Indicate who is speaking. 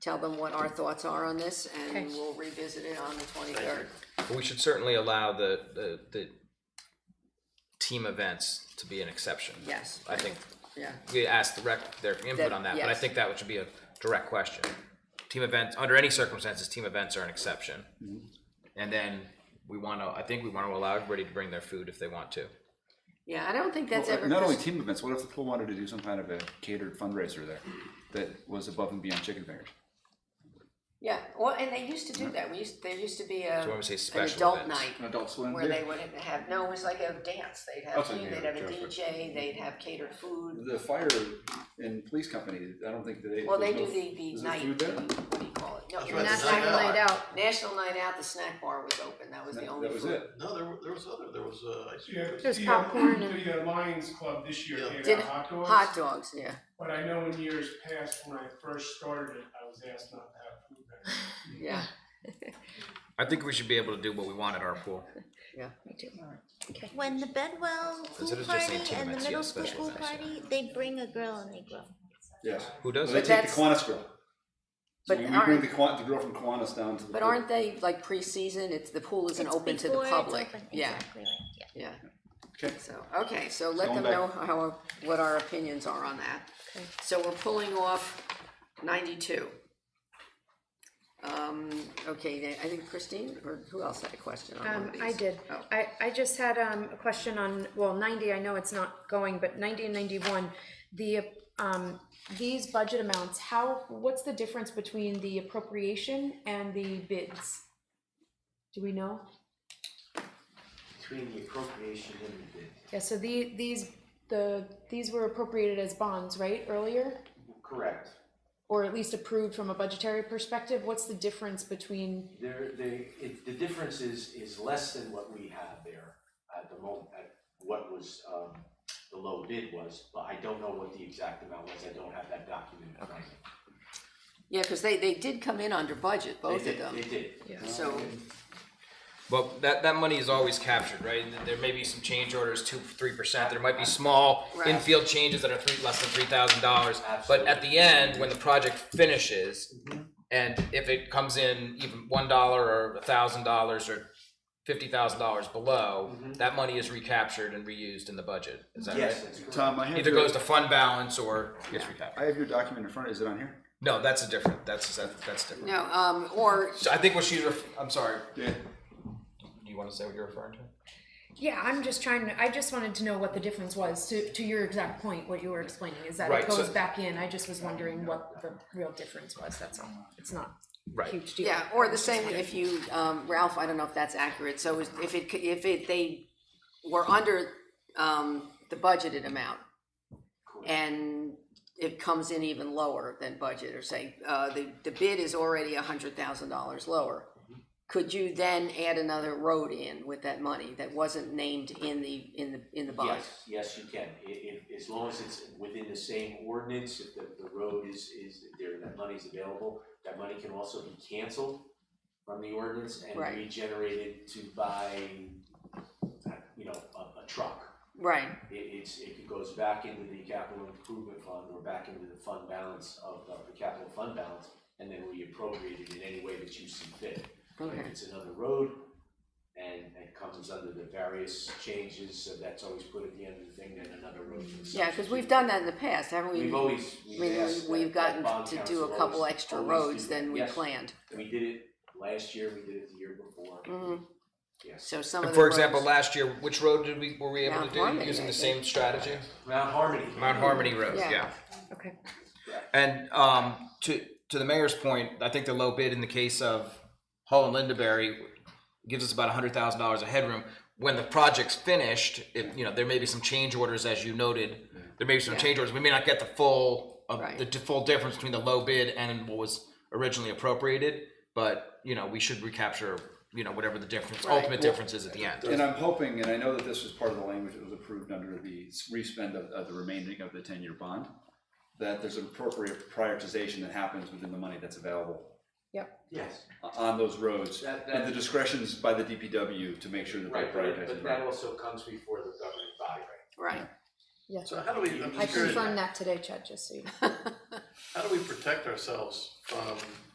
Speaker 1: tell them what our thoughts are on this, and
Speaker 2: Okay.
Speaker 1: we'll revisit it on the twenty-third.
Speaker 3: We should certainly allow the, the, the team events to be an exception.
Speaker 1: Yes.
Speaker 3: I think
Speaker 1: Yeah,
Speaker 3: we asked the rec, their input
Speaker 1: That-
Speaker 3: on that, but I
Speaker 1: yes.
Speaker 3: think that should be a direct question. Team events, under any circumstances, team events are an exception. And then we wanna, I think we wanna allow everybody to bring their food if they want to.
Speaker 1: yeah, I don't think that's
Speaker 4: Well,
Speaker 1: ever.
Speaker 4: Not only
Speaker 1: pres-
Speaker 4: team events, what if the pool wanted to do some kind of a catered fundraiser there that was above and beyond chicken fingers?
Speaker 1: Yeah, well, and they used to do that, we used, there used to be a,
Speaker 3: So when we say
Speaker 1: an
Speaker 3: special
Speaker 1: adult
Speaker 3: events.
Speaker 1: night
Speaker 4: An adult swim?
Speaker 1: where they would have, no, it was like a dance, they'd have,
Speaker 4: Also,
Speaker 1: food,
Speaker 4: yeah,
Speaker 1: they'd have a
Speaker 4: sure, sure.
Speaker 1: DJ, they'd have catered food.
Speaker 4: The fire and police company, I don't think that they.
Speaker 1: Well, they do
Speaker 4: there's no-
Speaker 1: the, the
Speaker 4: there's no
Speaker 1: night,
Speaker 4: food there?
Speaker 1: the- what do you call it? No, it
Speaker 5: right,
Speaker 1: was
Speaker 5: the
Speaker 1: snack
Speaker 5: night
Speaker 1: bar.
Speaker 2: National Night Out.
Speaker 1: National Night Out, the snack bar was open, that was the
Speaker 4: That
Speaker 1: only
Speaker 4: that was
Speaker 1: food.
Speaker 4: it.
Speaker 5: No, there, were- there was other, there was, uh, ice cream.
Speaker 6: Yeah,
Speaker 2: There's
Speaker 6: the,
Speaker 2: popcorn
Speaker 6: uh,
Speaker 2: and-
Speaker 6: The uh, Lions Club this year
Speaker 5: Yeah.
Speaker 6: gave
Speaker 1: Did-
Speaker 6: out hot dogs.
Speaker 1: Hot dogs, yeah.
Speaker 6: But I know in years past, when I first started it, I was asked not to have food there.
Speaker 1: Yeah,
Speaker 3: I think we should be able to do what we want at our pool.
Speaker 7: When the Bedwell pool
Speaker 3: Instead of just saying
Speaker 7: party and the
Speaker 3: tournaments,
Speaker 7: middle
Speaker 3: yeah,
Speaker 7: school
Speaker 3: special
Speaker 7: pool
Speaker 3: events, yeah.
Speaker 7: party, they bring a grill and they grill.
Speaker 4: Yes.
Speaker 3: Who does
Speaker 4: Well, they
Speaker 3: it?
Speaker 1: But
Speaker 4: take the
Speaker 1: that's-
Speaker 4: Kiwanis girl. So
Speaker 1: But
Speaker 4: we we bring
Speaker 1: aren't-
Speaker 4: the Kiwan, the girl from Kiwanis down to the.
Speaker 1: but
Speaker 4: pool.
Speaker 1: aren't they like pre-season, it's, the pool isn't
Speaker 7: It's
Speaker 1: open to the
Speaker 7: before it's
Speaker 1: public,
Speaker 7: open,
Speaker 1: yeah,
Speaker 7: Exactly right, yeah.
Speaker 1: yeah.
Speaker 4: Okay.
Speaker 1: So, okay, so let them
Speaker 4: Going back.
Speaker 1: know how, what our opinions are on that.
Speaker 2: Okay.
Speaker 1: So we're pulling off ninety-two. Um, okay, then I think Christine, or who else had a question on one
Speaker 2: Um,
Speaker 1: of these?
Speaker 2: I did.
Speaker 1: Oh.
Speaker 2: I, I just had, um, a question on, well, ninety, I know it's not going, but ninety and ninety-one, the, um, these budget amounts, how, what's the difference between the appropriation and the bids? Do we know?
Speaker 8: Between the appropriation and the bid,
Speaker 2: Yeah, so the, these, the, these were appropriated as bonds, right, earlier?
Speaker 8: correct.
Speaker 2: Or at least approved from a budgetary perspective? What's the difference between,
Speaker 8: There, they, it, the difference is, is less than what we have there at the moment, at what was, um, the low bid was, but I don't know what the exact amount was, I don't have that document. in front of me.
Speaker 1: Yeah, cause they, they did come in under budget, both
Speaker 8: They
Speaker 1: of
Speaker 8: did-
Speaker 1: them,
Speaker 8: They did.
Speaker 1: so,
Speaker 3: Well, that, that money is always captured, right? There may be some change orders, two, three percent. There might be small
Speaker 1: Right.
Speaker 3: infield changes that are three, less than three thousand dollars. But at the
Speaker 8: Absolutely. Mm-hmm.
Speaker 3: end, when the project finishes, and if it comes in even one dollar or a thousand dollars or fifty thousand dollars below, that money is recaptured and reused in the budget. Is that
Speaker 8: Mm-hmm. Yes,
Speaker 3: right?
Speaker 8: that's correct.
Speaker 4: Tom, I have
Speaker 3: Either
Speaker 4: your,
Speaker 3: goes to fund balance or gets
Speaker 4: I
Speaker 3: recaptured.
Speaker 4: have your document in front. Is it on here?
Speaker 3: No, that's a different, that's, that's, that's different.
Speaker 1: no, um, or,
Speaker 3: So I think what she's, ref- I'm sorry,
Speaker 4: Yeah.
Speaker 3: do you wanna say what you're referring to?
Speaker 2: yeah, I'm just trying to, I just wanted to know what the difference was to, to your exact point, what you were explaining, is that it
Speaker 3: Right, so-
Speaker 2: goes back in. I just was wondering what the real difference was, that's all. It's not a
Speaker 3: Right.
Speaker 2: huge deal.
Speaker 1: yeah, or the same, if you, um, Ralph, I don't know if that's accurate, so is- if it, c- if it, they were under, um, the budgeted amount,
Speaker 8: Correct.
Speaker 1: and it comes in even lower than budget, or say, uh, the, the bid is already a hundred thousand dollars lower.
Speaker 8: Mm-hmm.
Speaker 1: Could you then add another road in with that money that wasn't named in the, in the, in the bond?
Speaker 8: Yes, yes, you can, i- i- as long as it's within the same ordinance, if the, the road is, is, there, that money's available, that money can also be canceled from the ordinance and
Speaker 1: Right.
Speaker 8: regenerated to buy, uh, you know, a, a truck.
Speaker 1: Right,
Speaker 8: It, it's, it goes back into the capital improvement fund or back into the fund balance of, of the capital fund balance, and then reappropriated in any way that you see fit. But
Speaker 1: okay,
Speaker 8: If it's another road, and it comes under the various changes, so that's always put at the end of the thing, then another road. can
Speaker 1: yeah, cause we've done that in the past, haven't we?
Speaker 8: We've always,
Speaker 1: I
Speaker 8: we've
Speaker 1: mean,
Speaker 8: asked. that-
Speaker 1: we've
Speaker 8: that
Speaker 1: gotten
Speaker 8: bond
Speaker 1: to do
Speaker 8: council
Speaker 1: a couple
Speaker 8: always-
Speaker 1: extra
Speaker 8: always do
Speaker 1: roads
Speaker 8: that.
Speaker 1: than we
Speaker 8: Yes,
Speaker 1: planned.
Speaker 8: We did it last year, we did it the year before,
Speaker 1: Mhm.
Speaker 8: yes.
Speaker 1: So some of the
Speaker 3: And for example,
Speaker 1: roads-
Speaker 3: last year, which road did we, were we able
Speaker 1: Mount
Speaker 3: to do
Speaker 1: Harmony,
Speaker 3: using
Speaker 1: I
Speaker 3: the
Speaker 1: think.
Speaker 3: same strategy?
Speaker 8: Mount Harmony.
Speaker 3: Mount Harmony Road,
Speaker 1: Yeah.
Speaker 3: yeah.
Speaker 2: Okay.
Speaker 3: And um, to to the mayor's point, I think the low bid in the case of Hull and Lindaberry gives us about hundred thousand dollars of headroom. When the project's finished, if you know there may be some change orders, as you noted, there may be some
Speaker 1: Yeah.
Speaker 3: change orders. We may not get the full of
Speaker 1: Right.
Speaker 3: the t- full difference between the low bid and what was originally appropriated, but you know we should recapture you know whatever the difference
Speaker 1: Right.
Speaker 3: ultimate difference is at the end.
Speaker 4: And I'm hoping, and I know that this was part of the language that was approved under the respend of, of the remaining of the ten-year bond, that there's an appropriate prioritization that happens within the money that's available
Speaker 8: Yes,
Speaker 4: o- on those roads.
Speaker 8: That- that-
Speaker 4: And the discretion's by the DPW to make sure that they
Speaker 8: right, but,
Speaker 4: prioritize. the
Speaker 8: but that
Speaker 4: road.
Speaker 8: also comes before the governing body, right?
Speaker 1: Right,
Speaker 2: Yes,
Speaker 5: So how do we, I'm
Speaker 2: I
Speaker 5: just curious,
Speaker 2: confirmed that today, Chad, just so you know.
Speaker 5: How do we protect ourselves from